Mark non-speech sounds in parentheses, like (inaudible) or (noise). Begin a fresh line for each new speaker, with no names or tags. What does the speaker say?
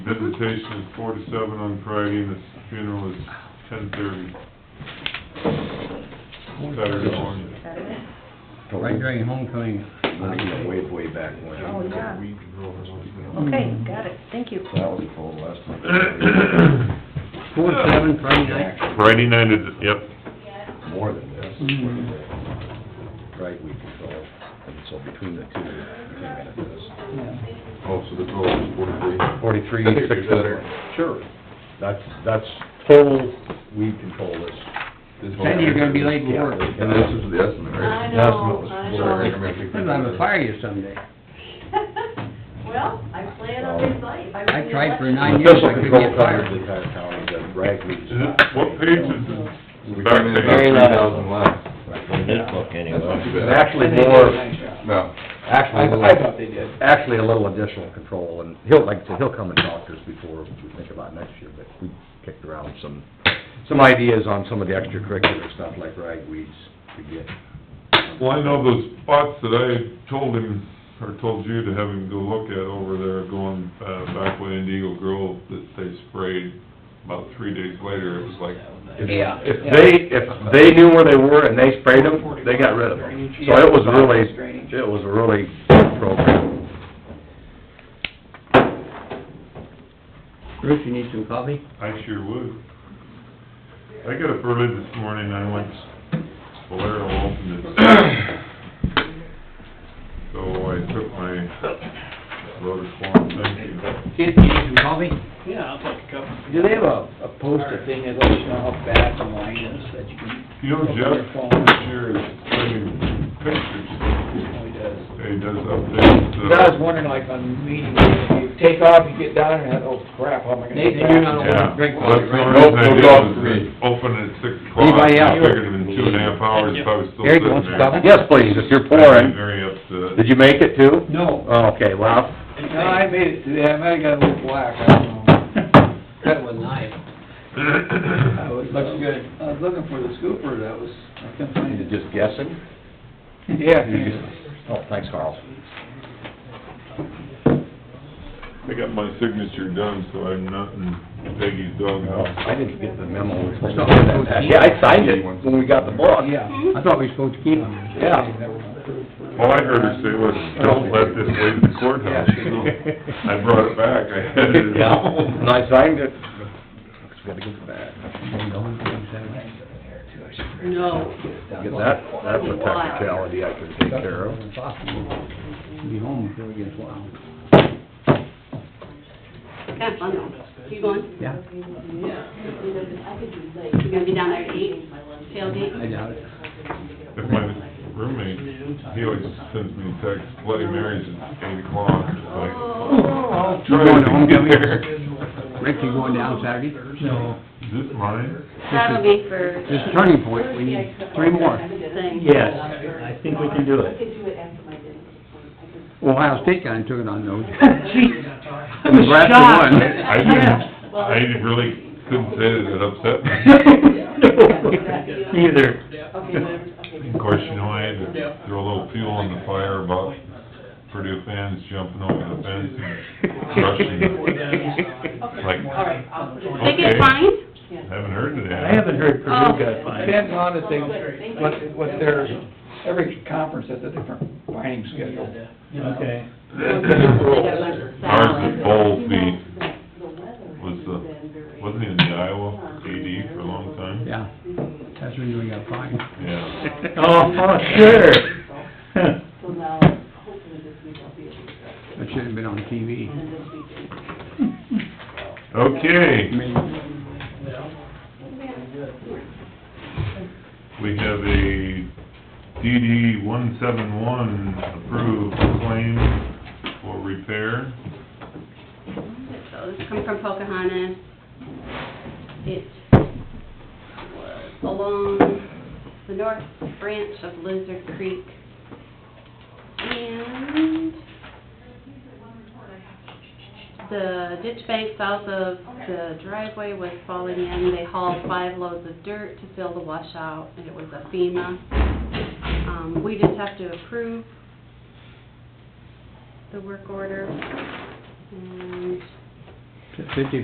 Visitation is four to seven on Friday, and the funeral is ten thirty, Saturday morning.
Saturday?
Right during homecoming.
Way, way, way back when.
Oh, yeah. Okay,
Mhm.
got it, thank you.
That was cold last night.
Four to seven Friday night.
Friday night is, yep,
More than this.
Mhm.
Right, we can go, and so between the two, we came out of this.
Yeah.
Oh, so the total is forty-three?
Forty-three,
I think
six
it's
hundred.
better.
Sure. That's, that's total weed control this.
This whole-
Sandy, you're gonna be late for
Yeah.
work.
And this is the estimate,
I
right?
know, I know.
Sorry, I'm gonna
I'm
take
gonna
that.
fire you someday.
(laughs) Well, I plan on his life. was
I
the
tried for
election-
nine years,
Official
I couldn't
control
get
covers
fired.
the entire county, the ragweed.
Is it- what page is it?
We came in about
Very
three
low.
thousand less.
In this book, anyway.
That's not too
It's
bad.
actually more,
No.
actually, a
I
little-
thought they did.
actually a little additional control, and he'll, like I said, he'll come and talk to us before we think about next year, but we kicked around some, some ideas on some of the extracurricular stuff, like ragweeds, to get.
Well, I know those spots that I told him, or told you to have him go look at over there, going uh, back way into Eagle Grove, that they sprayed, about three days later, it was like,
If-
Yeah.
If they, if they knew where they were and they sprayed them, they got rid of them. So it was really, it was a really good program.
Bruce, you need some coffee?
I sure would. I got up early this morning, I went Bolero opened it. So I took my Rotacom, thank you.
Kid, you need some coffee?
Yeah, I'll take a couple.
Do they have a, a poster thing that lets you know how bad the line is that you can?
You know, Jeff, this year is bringing pictures,
Oh, he does.
he does updates. uh,
But I was wondering, like, on meetings, if you take off, you get down, and, oh crap, how am I gonna?
Nathan,
get
you're
back?
not
Yeah,
allowed to drink
well,
coffee,
that's the
right?
only reason I
Nope,
did
no golf for
was
me.
open at six o'clock,
Anybody
I
else?
figured in two and a half hours, if I was still
Eric, you
sitting
want some
there.
coffee?
Yes, please, if you're
I'd be
pouring.
very upset.
Did
(coughs)
you make it too?
No,
Oh, Okay, well,
no, I made it today, I might have got a little black, I don't know.
That was nice.
I was,
Looks good.
I was looking for the scooper, that was, I couldn't
you
find
(laughs)
it.
just (laughs) guessing?
Yeah.
You just- Oh, thanks, Carl.
I got my signature done, so I'm not in Peggy's doghouse.
I didn't get the memo.
So, who's-
Yeah, I signed it when we got the book.
Yeah, I thought we were supposed to keep them.
(laughs) Yeah.
All I heard her say was, don't let this leave the courthouse. So I brought it back, I had it at
Yeah,
home.
and I signed it. Just gotta get back.
No,
Get that, that's a technicality I can take care of.
Be home before it gets wild.
kind of fun though. You going?
Yeah.
You gonna be down there at eight,
I
tailgate?
doubt it.
If my roommate, he always sends me texts, Bloody Mary's at eight o'clock, it's like,
Oh.
You
try to
going to
get
homecoming?
there.
Rick, you going down Saturday?
No. Is this mine?
That'll be for.
This is turning point, we need three more.
Thing.
Yes, I think we can do it.
Ohio
(laughs)
State guy took it on those.
I
was Nebraska shocked. won.
I didn't, I really couldn't say that it upset me.
(laughs) Neither.
Of course, you know, I had to throw a little fuel on the fire about Purdue fans jumping over the fence and crushing,
(laughs)
like,
They get fined?
haven't heard of that.
I haven't heard Purdue
Oh.
got fined.
Depends on if they, what, what their, every conference has a different finding schedule.
Okay.
Ours is bowl fee, was the, wasn't even the Iowa AD for a long time?
Yeah,
(laughs)
that's when we got fined.
Yeah.
Oh, sure.
That shouldn't have been on TV.
Okay,
I mean,
we have a DD one seven one approved claim for repair.
So this come from Pocahontas. It was along the north branch of Lizard Creek. And the ditch bank south of the driveway was falling in. They hauled five loads of dirt to fill the washout, and it was a FEMA. Um, we just have to approve the work order. And
Fifty